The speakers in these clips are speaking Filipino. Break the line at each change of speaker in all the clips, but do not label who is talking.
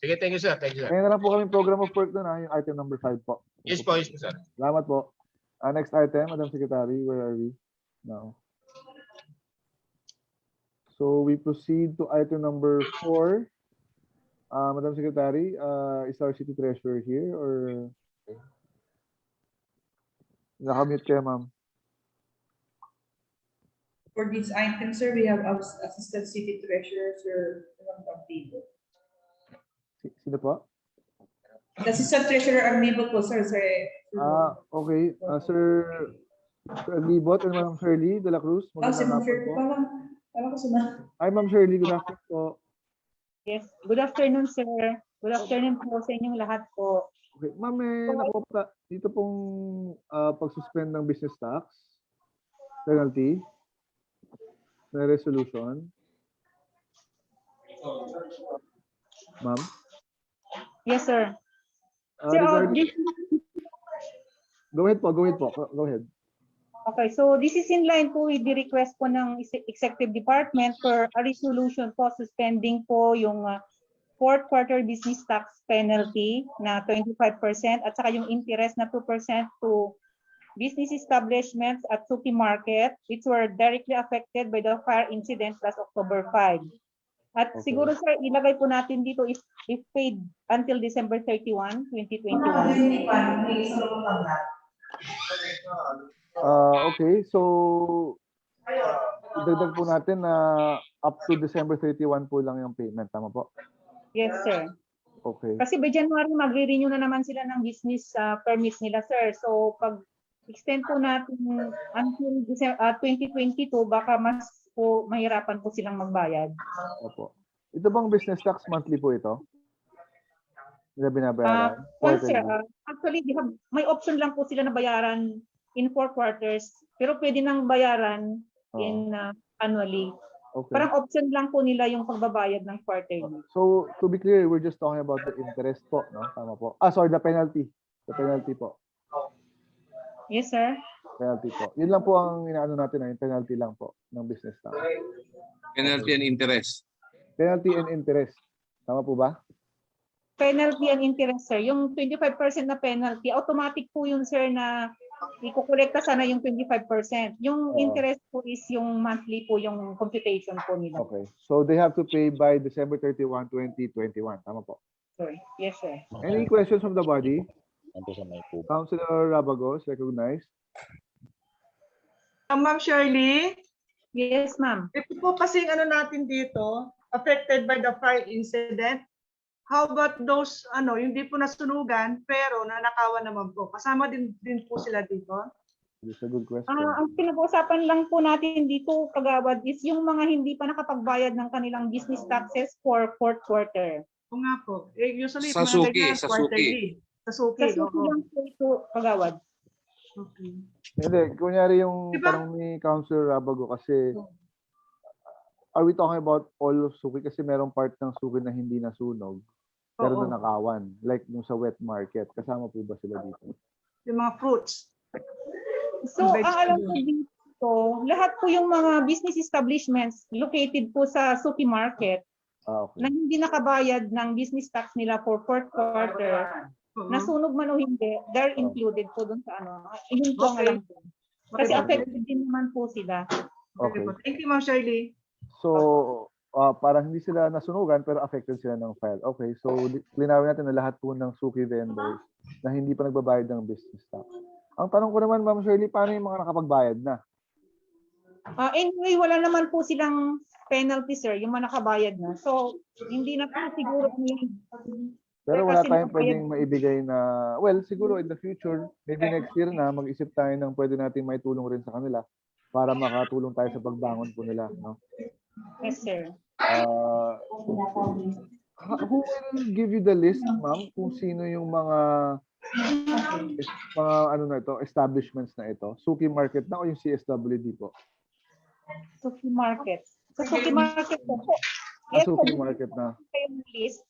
Sige, thank you, sir. Thank you, sir.
Ngayon na lang po kami program of work doon, ah, yung item number 5 po.
Yes po, yes po, sir.
Salamat po. Ah, next item, Madam Secretary, where are we now? So we proceed to item number four. Ah, Madam Secretary, ah, is our city treasurer here or? Nakamute kayo, ma'am.
For this item, sir, we have Abs- Assistant City Treasurer, Sir Ron Campillo.
Si- Sino po?
The Assistant Treasurer Amnibo po, sir, sir.
Ah, okay. Ah, sir, Sir Libot and Ma'am Shirley de la Cruz.
Oh, si Ma'am
magandang hapon
Shirley,
po.
parang, parang ko si Ma'am.
Hi, Ma'am Shirley. Good afternoon po.
Yes, good afternoon, sir. Good afternoon po sa inyong lahat po.
Okay, ma'am, may nakuha dito pong ah, pag-suspend ng business tax penalty na resolution. Ma'am,
Yes, sir.
ah,
Sir, oh,
regard-
this-
go ahead po, go ahead po, go ahead.
okay, so this is in line po with the request po ng Exe- Executive Department for a resolution po suspending po yung ah, fourth quarter business tax penalty na 25% at saka yung interest na 2% to business establishments at Suki Market which were directly affected by the fire incident last October 5. At
Okay.
siguro sir, ilagay po natin dito if, if paid until December 31, 2021.
Ah, okay, so idagdag po natin na up to December 31 po lang yung payment, tama po?
Yes, sir.
Okay.
Kasi by January, magre-renew na naman sila ng business uh, permits nila, sir. So, pag extend po natin until Dece- uh, 2022, baka mas po mahirapan po silang magbayad.
Opo. Ito bang business tax monthly po ito? Nila
Uh,
binabayaran?
well, sir,
Quarterly?
uh, actually, they have- may option lang po sila na bayaran in four quarters, pero pwede nang bayaran
Oo,
in uh, annually.
Ah, okay.
Parang option lang po nila yung pagbabayad ng quarterly.
So, to be clear, we're just talking about the interest po, no? Tama po. Ah, sorry, the penalty. The penalty po.
Yes, sir?
Penalty po. Yun lang po ang inaano natin, na yung penalty lang po ng business tax.
Penalty and interest.
Penalty and interest. Tama po ba?
penalty and interest, sir. Yung 25% na penalty, automatic po yun, sir, na ikukolekta sana yung 25%.
Oo.
Yung interest po is yung monthly po, yung computation po nila.
Okay. So, they have to pay by December 31, 2021. Tama po.
Sir. Yes, sir.
Any questions from the body?
Nandun sa may po.
Councilor Rabagos, recognized.
Ah, Ma'am Shirley,
Yes, ma'am.
ito po kasi ano natin dito, affected by the fire incident. How about those, ano, yung di po nasunugan, pero nanakawan naman po? Kasama din, din po sila dito?
This is a good question.
Ah, ang pinag-uusapan lang po natin dito, kagawad, is yung mga hindi pa nakapagbayad ng kanilang business taxes for fourth quarter.
O nga po. Eh, usually,
Sa
mga
suki,
ganyan,
sa suki.
quarterly. Sa suki,
Kasi
oo.
po lang po ito, kagawad.
Okay.
Hindi, kunyari yung
Diba?
tanong ni Councilor Rabago kasi
Oo.
are we talking about all of suki? Kasi merong part ng suki na hindi nasunog. pero
Oo.
na nakawan. Like yung sa wet market, kasama po ba sila dito?
Yung mga fruits.
So, ang
Vegetable.
alam ko dito, lahat po yung mga business establishments located po sa Suki Market
Ah, okay.
na hindi nakabayad ng business tax nila for fourth quarter,
Oo.
nasunog man o hindi, they're included po doon sa ano. Yun po ang
Okay.
alam ko. Kasi
Okay.
affected din naman po sila.
Okay po. Thank you, Ma'am Shirley.
So, ah, parang hindi sila nasunugan pero affected sila ng fire. Okay, so li- linawin natin na lahat po ng suki vendors na hindi pa nagbabayad ng business tax. Ang tanong ko naman, Ma'am Shirley, paano yung mga nakapagbayad na?
Ah, anyway, wala naman po silang penalty, sir, yung mga nakabayad na. So, hindi na po siguro
Pero
Sir,
wala
Eh, kasi
tayong
nabayad-
pwedeng maibigay na, well, siguro in the future, maybe next year na, mag-isip tayo ng pwede nating may tulong rin sa kanila para makatulong tayo sa pagbangon po nila. No?
yes, sir.
Ah, ha- who will give you the list, ma'am, kung sino yung mga mga ano na ito, establishments na ito? Suki Market na o yung CSWD po?
Suki Market. Sa Suki Market po. po.
Ah,
Yes,
Suki
sir,
Market na.
yung list.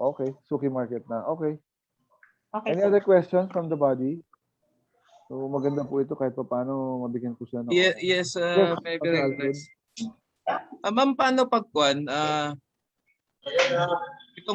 Okay, Suki Market na. Okay.
Okay,
Any
sir.
other questions from the body? So maganda po ito kahit paano mabigyan ko siya ng
Ye- Yes, uh, may
Yes, Dr. Alfred.
uh, very nice. Ah, Ma'am, paano pag kwan? Ah,